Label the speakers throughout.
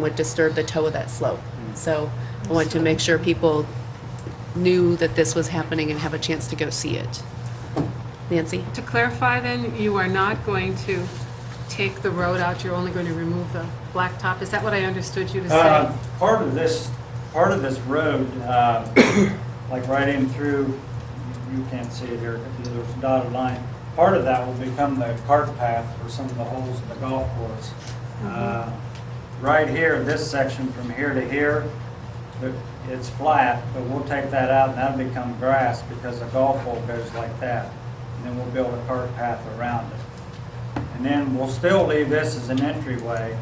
Speaker 1: would disturb the toe of that slope. Mm. So I wanted to make sure people knew that this was happening and have a chance to go see it. Nancy?
Speaker 2: To clarify then, you are not going to take the road out, you're only going to remove the blacktop? Is that what I understood you to
Speaker 3: Uh,
Speaker 2: say?
Speaker 3: Part of this, part of this road, uh, like right in through, you can't see it here, but there's a dotted line. Part of that will become the cart path for some of the holes in the golf course. Uh, Right here, this section from here to here, but it's flat, but we'll take that out and that'll become grass because a golf hole goes like that. And then we'll build a cart path around it. And then we'll still leave this as an entryway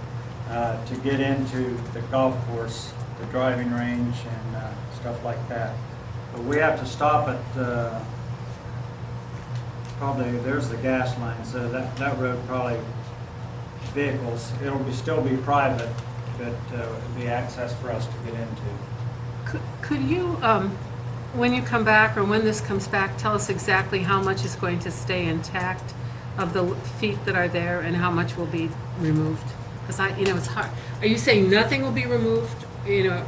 Speaker 3: uh, to get into the golf course, the driving range and uh, stuff like that. But we have to stop at, uh, probably, there's the gas line, so that, that road probably vehicles, it'll be, still be private, but uh, it'll be access for us to get into.
Speaker 2: Could- Could you, um, when you come back, or when this comes back, tell us exactly how much is going to stay intact of the feet that are there and how much will be removed? Because I, you know, it's hard. Are you saying nothing will be removed? You know,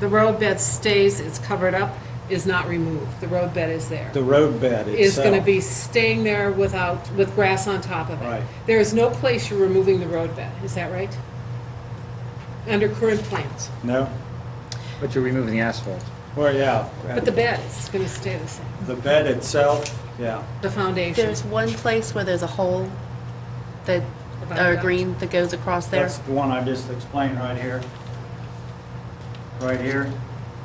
Speaker 2: the road bed stays, it's covered up, is not removed, the road bed is there?
Speaker 4: The road bed itself.
Speaker 2: is going to be staying there without, with grass on top of it.
Speaker 4: Right.
Speaker 2: There is no place you're removing the road bed, is that right? Under current plans,
Speaker 4: No,
Speaker 5: But you're removing the asphalt.
Speaker 4: well, yeah.
Speaker 2: but the bed is going to stay the same,
Speaker 4: The bed itself, yeah.
Speaker 2: the foundation.
Speaker 1: There's one place where there's a hole that, or green that goes across there.
Speaker 3: That's the one I just explained right here. Right here.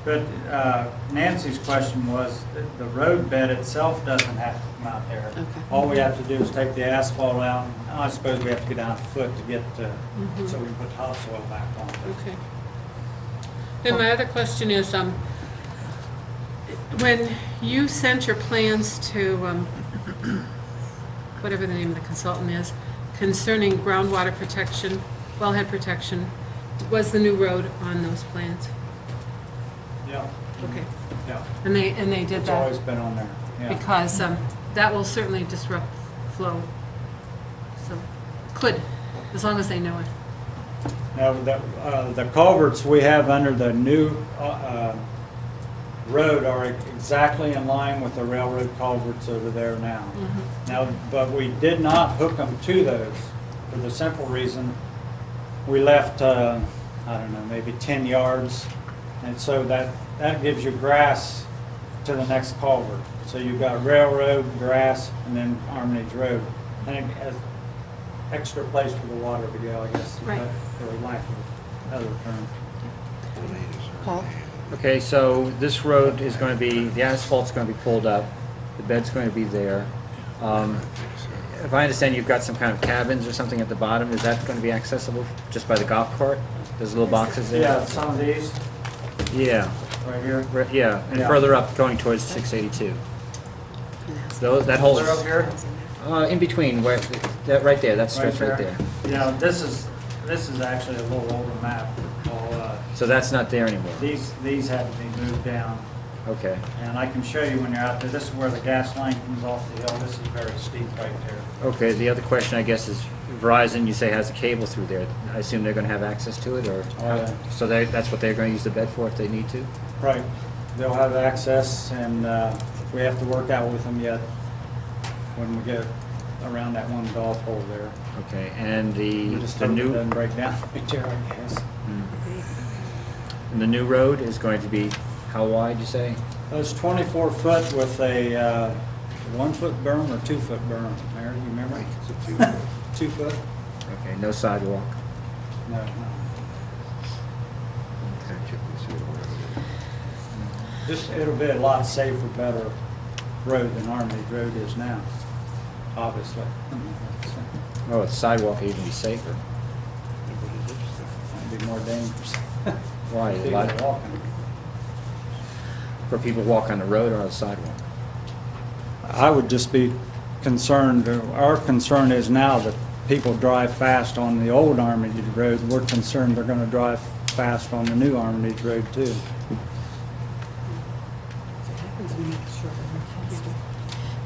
Speaker 3: But uh, Nancy's question was, th- the road bed itself doesn't have to come out there.
Speaker 1: Okay.
Speaker 3: All we have to do is take the asphalt out, and I suppose we have to get down a foot to get, uh, so we can put topsoil back on.
Speaker 2: Okay. Oh. Then my other question is, um, when you sent your plans to, um, whatever the name of the consultant is, concerning groundwater protection, wellhead protection, was the new road on those plans?
Speaker 3: Yeah,
Speaker 2: Okay,
Speaker 3: yeah.
Speaker 2: and they, and they did
Speaker 3: It's
Speaker 2: that?
Speaker 3: always been on there, yeah.
Speaker 2: Because um, that will certainly disrupt flow. So, could, as long as they know it.
Speaker 3: Now, the, uh, the culverts we have under the new, uh, uh, road are exactly in line with the railroad culverts over there now. Now, but we did not hook them to those for the simple reason, we left, uh, I don't know, maybe ten yards. And so that, that gives you grass to the next culvert. So you've got railroad, grass, and then Armitage Road. And it has extra place for the water to go, I guess, is
Speaker 2: Right.
Speaker 3: that for lack of other term.
Speaker 1: Paul?
Speaker 5: Okay, so this road is going to be, the asphalt's going to be pulled up, the bed's going to be there. Um, If I understand, you've got some kind of cabins or something at the bottom, is that going to be accessible just by the golf cart? There's little boxes there?
Speaker 3: Yeah, some of these,
Speaker 5: Yeah,
Speaker 3: right here.
Speaker 5: re- yeah, and
Speaker 3: Yeah.
Speaker 5: further up going towards 682. Those, that whole,
Speaker 3: They're up here.
Speaker 5: uh, in between, where, that, right there, that
Speaker 3: Right
Speaker 5: stretch right there.
Speaker 3: Yeah, this is, this is actually a little older map. Well, uh,
Speaker 5: So that's not there anymore?
Speaker 3: These, these had to be moved down,
Speaker 5: Okay,
Speaker 3: and I can show you when you're out there. This is where the gas line comes off the hill. This is very steep right there.
Speaker 5: okay, the other question, I guess, is Verizon, you say has a cable through there. I assume they're going to have access to it, or?
Speaker 3: Oh, yeah.
Speaker 5: So they, that's what they're going to use the bed for if they need to?
Speaker 3: Right. They'll have access, and uh, we have to work out with them yet when we get around that one golf hole there.
Speaker 5: Okay, and the,
Speaker 3: We just
Speaker 5: Mm-hmm.
Speaker 3: hope
Speaker 5: the
Speaker 3: it
Speaker 5: new,
Speaker 3: Doesn't break down right there, I guess.
Speaker 5: and the new road is going to be how wide, you say?
Speaker 3: It's 24 foot with a uh, one-foot berm or two-foot berm, Mayor, you remember? Two-foot?
Speaker 5: Okay, no sidewalk.
Speaker 3: No. This, it'll be a lot safer, better road than Armitage Road is now, obviously.
Speaker 5: Oh, the sidewalk would even be safer.
Speaker 3: It'd be more dangerous.
Speaker 5: Why?
Speaker 3: People
Speaker 5: Like-
Speaker 3: walking.
Speaker 5: Where people walk on the road or on the sidewalk?
Speaker 3: I would just be concerned, our concern is now that people drive fast on the old Armitage Road. We're concerned they're gonna drive fast on the new Armitage Road too.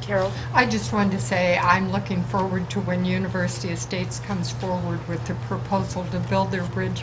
Speaker 1: Carol?
Speaker 6: I just wanted to say, I'm looking forward to when University Estates comes forward with the proposal to build their bridge